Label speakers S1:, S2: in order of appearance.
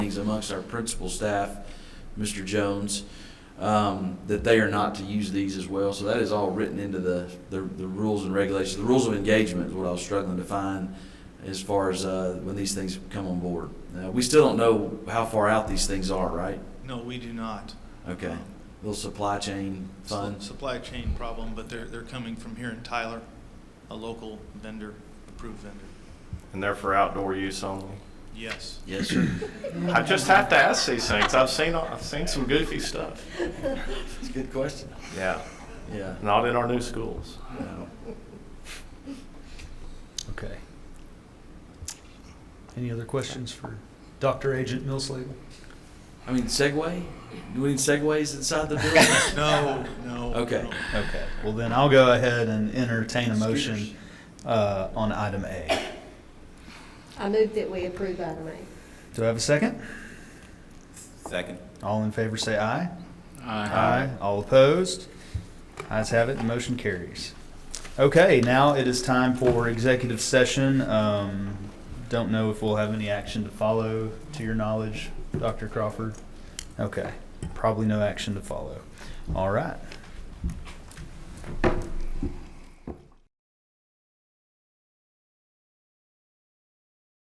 S1: meetings amongst our principal staff, Mr. Jones, um, that they are not to use these as well. So that is all written into the, the, the rules and regulations. The rules of engagement is what I was struggling to find as far as, uh, when these things come on board. Uh, we still don't know how far out these things are, right?
S2: No, we do not.
S1: Okay.
S2: Um,
S1: Little supply chain
S2: it's a
S1: fund.
S2: Supply chain problem, but they're, they're coming from here in Tyler, a local vendor, approved vendor.
S3: And they're for outdoor use only.
S2: Yes.
S1: Yes, sir.
S3: I just have to ask these things. I've seen, I've seen some goofy stuff.
S1: It's a good question.
S3: Yeah,
S1: Yeah.
S3: not in our new schools.
S1: No.
S4: Okay. Any other questions for Dr. Agent Millsley?
S1: I mean, Segway? Do we need Segways inside the building?
S2: No, no.
S1: Okay.
S2: no.
S4: Okay, well then I'll go ahead and entertain a motion uh, on item A.
S5: I move that we approve item A.
S4: Do I have a second?
S6: Second.
S4: All in favor say aye. Aye. All opposed? Ayes have it, the motion carries. Okay, now it is time for executive session. Um, Don't know if we'll have any action to follow, to your knowledge, Dr. Crawford? Okay, probably no action to follow. All right.